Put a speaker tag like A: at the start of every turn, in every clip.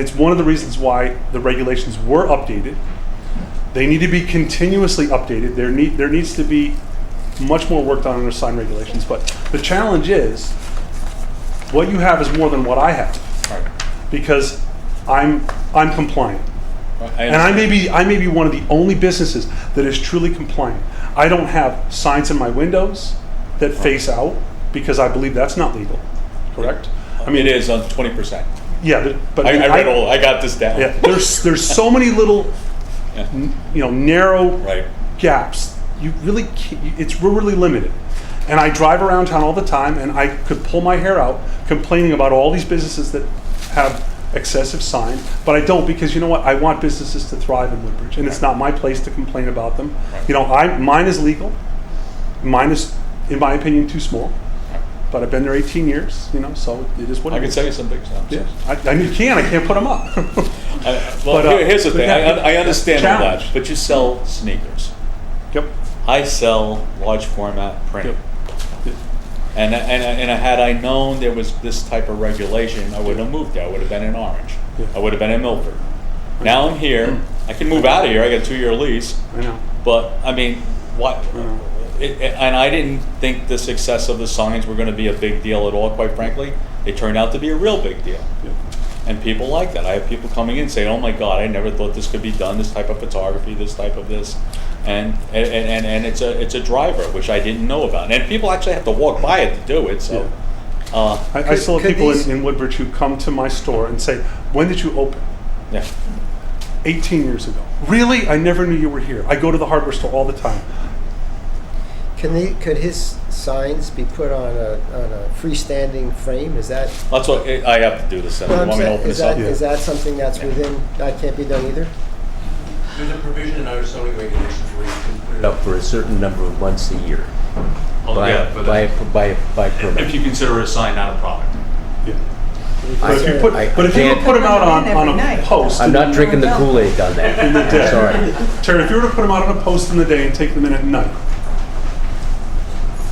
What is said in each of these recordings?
A: It's one of the reasons why the regulations were updated. They need to be continuously updated. There need, there needs to be much more work done on the sign regulations. But the challenge is, what you have is more than what I have,
B: Right.
A: because I'm, I'm compliant.
B: I
A: And I
B: understand.
A: may be, I may be one of the only businesses that is truly compliant. I don't have signs in my windows that face out, because I believe that's not legal, correct? I mean,
B: it is on twenty percent.
A: yeah, but- but.
B: Uh, I, I read all. I got this down.
A: Yeah, there's there's so many little,
B: Yeah.
A: n- you know, narrow
B: Right.
A: gaps. You really, can't, you- it's we're really limited. And I drive around town all the time, and I could pull my hair out complaining about all these businesses that have excessive signs, but I don't because you know what? I want businesses to thrive in Woodbridge, and it's not my place to complain about them.
B: Right.
A: You know, I mine is legal. Mine is, in my opinion, too small. But I've been there 18 years, you know, so it is what
B: I
A: it
B: can
A: is.
B: sell you some big stuff.
A: Yeah, I, I mean, you can. I can't put them up.
B: I, well,
A: But, uh,
B: here- here's the
A: but
B: thing.
A: that-
B: I, I understand all
A: challenge.
B: that, but you sell sneakers.
A: yep.
B: I sell large format print.
A: Yep. Yep.
B: And, I- and, I- and I- had I known there was this type of regulation, I would have moved there. I would have been in Orange.
A: Yeah. Mm.
B: I would have been in Milford. Now I'm here. I can move out of here. I got a two year lease.
A: I know.
B: But I mean, what?
A: Mm.
B: It, it- and I didn't think the success of the signs were going to be a big deal at all. Quite frankly, it turned out to be a real big deal,
A: Yep.
B: and people like that. I have people coming in saying, "Oh my God, I never thought this could be done. This type of photography, this type of this," and and, and, and it's a it's a driver which I didn't know about. And people actually have to walk by it to do it. So, uh,
A: I, I
C: Could-
A: still have
C: could
A: people
C: these-
A: in, in Woodbridge who come to my store and say, "When did you open?"
B: yeah,
A: 18 years ago. Really? I never knew you were here. I go to the hardware store all the time.
C: Can the, could his signs be put on a, on a freestanding frame? Is that?
B: that's what I I have to do this. I
C: No, I'm
B: want me to
C: saying-
B: open this
C: is that-
B: up.
C: is that something that's within, that can't be done either?
D: There's a provision in our zoning regulations where you can put it
E: up for a certain number of months a year.
B: Oh,
E: by-
B: yeah, but
E: By, by, by permit.
B: if you consider it a sign not a product.
A: Yeah. But if you
C: Sir,
A: put,
E: I-
A: but if you were to
E: I
A: put them out on,
F: can't-
A: on a post,
E: I'm
A: in
E: not drinking the Kool-Aid on
A: in the
E: that.
A: day,
E: Sorry.
A: Terry, if you were to put them out on a post in the day and take them in at night,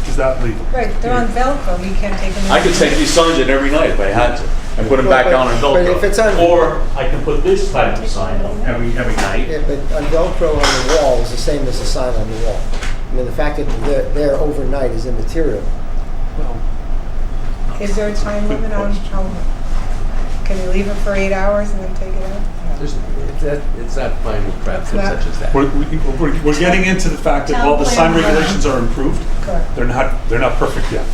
A: is that legal?
F: Right, they're on Velcro, we can't take them.
B: I could take these signs in every night if I had to, and put them back
C: Well, but-
B: on and
C: but if it's on-
B: Velcro. Or I can put this type of sign up every, every night.
C: Yeah, but a Velcro on the wall is the same as a sign on the wall. I mean, the fact that they're there overnight is immaterial.
F: Is there a time limit on how, can you leave it for eight hours and then take it out?
E: There's- it's not- It's not fine with crafts
F: It's not-
E: such as that.
A: We're, we- we're, we're getting into the fact that
F: Town
A: while the sign
F: plan.
A: regulations are improved,
F: Correct.
A: they're not, they're not perfect yet.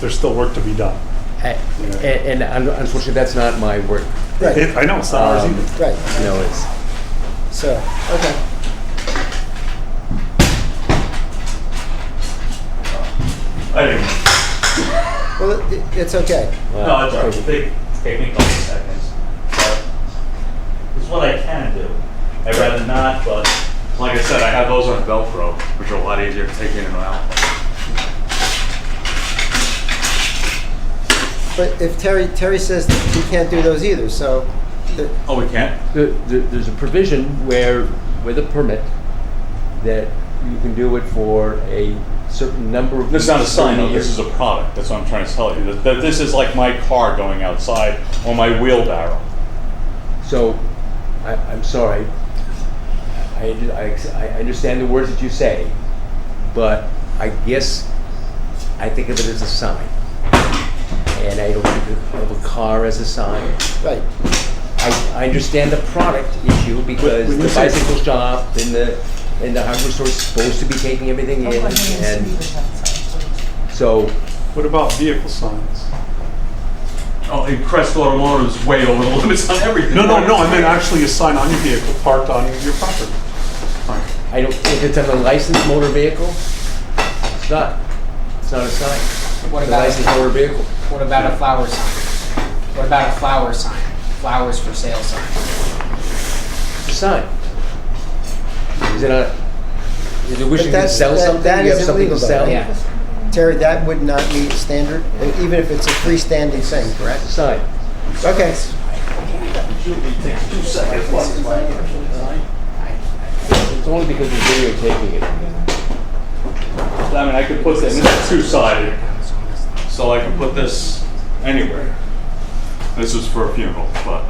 A: There's still work to be done.
E: A- And, and un- unfortunately, that's not my work.
C: Right,
A: It- I know, it's not ours
E: Um,
A: either.
C: right,
E: You know, it's, uh,
C: so, okay.
B: I didn't,
C: Well, it- it's okay.
E: well,
B: They take me a couple seconds, but it's what I can do. I'd rather not, but like I said, I have those on Velcro, which are a lot easier to take in and out.
C: But if Terry, Terry says that he can't do those either, so, the-
B: Oh, we can't?
E: the- the- there's a provision where, with a permit, that you can do it for a certain number of.
B: This is not a
E: weeks,
B: sign, though.
E: certain
B: This is
E: years.
B: a product. That's what I'm trying to tell you. That- that This is like my car going outside or my wheelbarrow.
E: So, I, I'm sorry. I, I, I understand the words that you say, but I guess I think of it as a sign. And I don't think of of a car as a sign.
C: right.
E: I, I understand the product issue
A: When-
E: because
A: when you
E: the
A: say-
E: bicycle shop and the, and the hardware store is supposed to be taking everything
F: Oh,
E: in. And so,
A: What about vehicle signs?
B: Oh, and Crest Automotive is way over the limits on everything.
A: No, no, no, I meant actually a sign on your vehicle parked on your property.
E: I don't, if it's an unlicensed motor vehicle, it's not, it's not a sign.
G: What
E: It's a
G: about,
E: licensed motor vehicle.
G: what about a flower sign? What about a flower sign? Flowers for sale sign?
E: the sign. Is it a, is it wishing to
C: that's-
E: sell
C: that-
E: something?
C: that
E: You have
C: is
E: something to
C: illegal, though,
E: sell?
G: Yeah.
C: Terry, that would not meet standard, even if it's a freestanding thing, correct?
E: Sign.
C: Okay,
E: It's only because we're videotaping it.
B: I mean, I could put this, and this is two-sided, so I can put this anywhere. This is for a funeral, but.